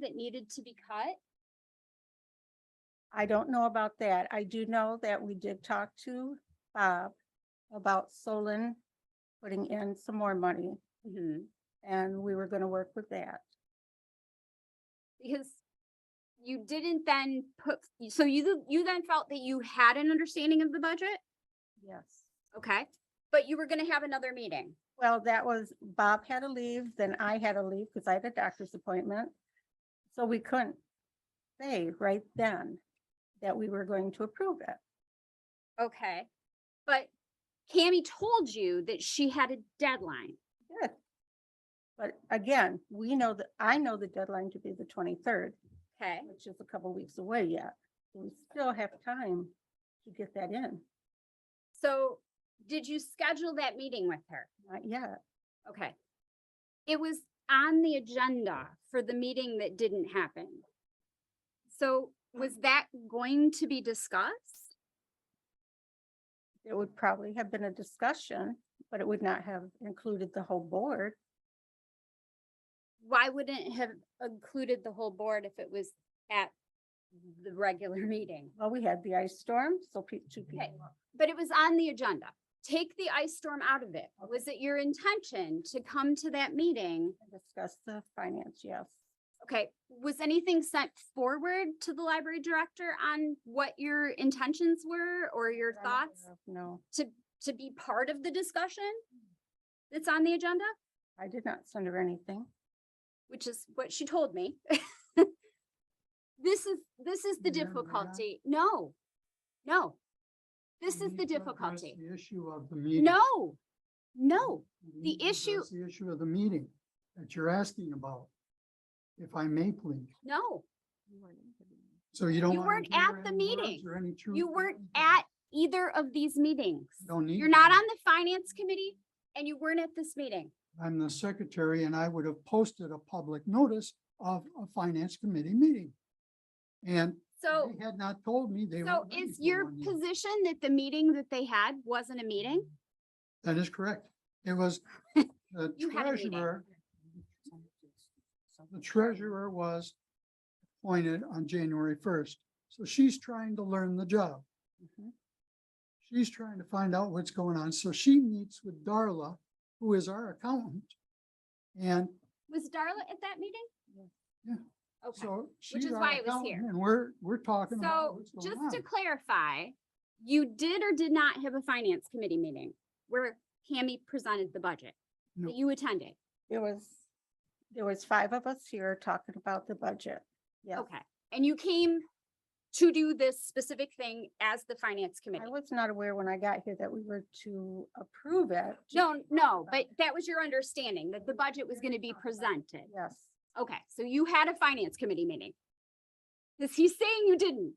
that needed to be cut? I don't know about that. I do know that we did talk to Bob about Solon putting in some more money and we were gonna work with that. Because you didn't then put, so you, you then felt that you had an understanding of the budget, Yes. okay? But you were gonna have another meeting. Well, that was, Bob had to leave, then I had to leave because I had a doctor's appointment. So we couldn't say right then that we were going to approve it. Okay, but Cammy told you that she had a deadline. Good. But again, we know that, I know the deadline to be the twenty-third, Okay, which is a couple weeks away yet. We still have time to get that in, so did you schedule that meeting with her? not yet. Okay. It was on the agenda for the meeting that didn't happen. So was that going to be discussed? It would probably have been a discussion, but it would not have included the whole board. Why wouldn't it have included the whole board if it was at the regular meeting? Well, we had the ice storm, so pe- two people. But it was on the agenda. Take the ice storm out of it. Was it your intention to come to that meeting? discussed the finance, yes. Okay, was anything sent forward to the library director on what your intentions were or your But I'm not thoughts? aware of- Uh, No, to, to be part of the discussion that's on the agenda, I did not send her anything. which is what she told me. This is, this is the Yeah, yeah. difficulty. No, no. This We is the need to address difficulty. The issue of the meeting. No, no. We need the to issue- address The issue of the meeting that you're asking about, if I may please. No, So you don't. You wanna weren't hear at the any words meeting. or any truth you to weren't anything. at either of these meetings. Don't need. You're to not be. on the finance committee and you weren't at this meeting. I'm the secretary and I would have posted a public notice of a finance committee meeting. And So, they had not told me they. so were ready is for your one yet. position that the meeting that they had wasn't a meeting? That is correct. It was the You had a meeting. treasurer. The treasurer was appointed on January first, so she's trying to learn the job. Mhm. She's trying to find out what's going on, so she meets with Darla, who is our accountant. And Was Darla at that meeting? Yeah. Okay. so she's is our why it was accountant, here. And we're, we're talking about So what's going just to on. clarify, you did or did not have a finance committee meeting where Cammy presented the budget No. that you attended? There was, there was five of us here talking about the budget. Yes, Okay, and you came to do this specific thing as the finance committee? I was not aware when I got here that we were to approve it. just- No, no, but that was your understanding that the budget was going to be presented. Yes, Okay, so you had a finance committee meeting? Is he saying you didn't?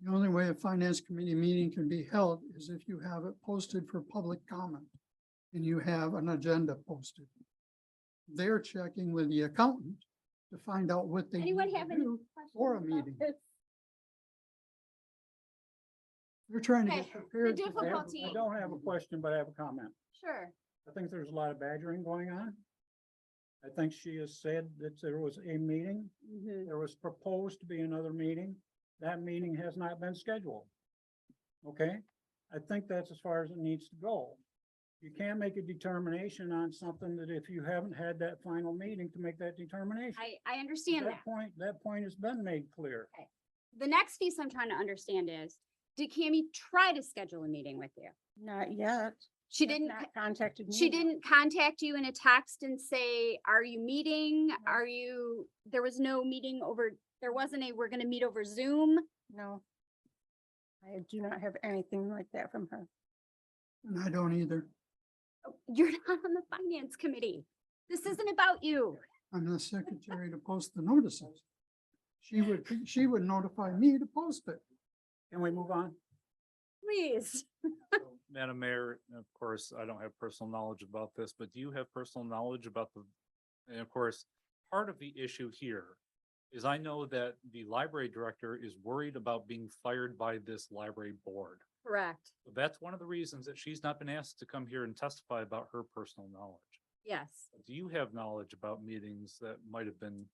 The only way a finance committee meeting can be held is if you have it posted for public comment and you have an agenda posted. They're checking with the accountant to find out what they need Anyone to have any do. questions? for a about meeting. this? They're trying to Okay, get prepared. the for that. I have- difficulty- I don't have a question, but I have a comment. Sure. I think there's a lot of badgering going on. I think she has said that there was a meeting, Mhm. there was proposed to be another meeting. That meeting has not been scheduled. Okay, I think that's as far as it needs to go. You can't make a determination on something that if you haven't had that final meeting to make that determination. I, I understand that. Point, that point has been made clear. the next piece I'm trying to understand is, did Cammy try to schedule a meeting with you? not yet. She Has didn't, co- Not contacted me. she yet. didn't contact you in a text and say, are you meeting? Are you, there was no meeting over, there wasn't a, we're gonna meet over Zoom? No. I do not have anything like that from her. And I don't either. Oh, You're not on the finance committee. This isn't about you. I'm the secretary to post the notices. She would, she would notify me to post it. Can we move on? Please. Madam Mayor, and of course, I don't have personal knowledge about this, but do you have personal knowledge about the, and of course, part of the issue here is I know that the library director is worried about being fired by this library board. Correct. That's one of the reasons that she's not been asked to come here and testify about her personal knowledge. Yes. Do you have knowledge about meetings that might have been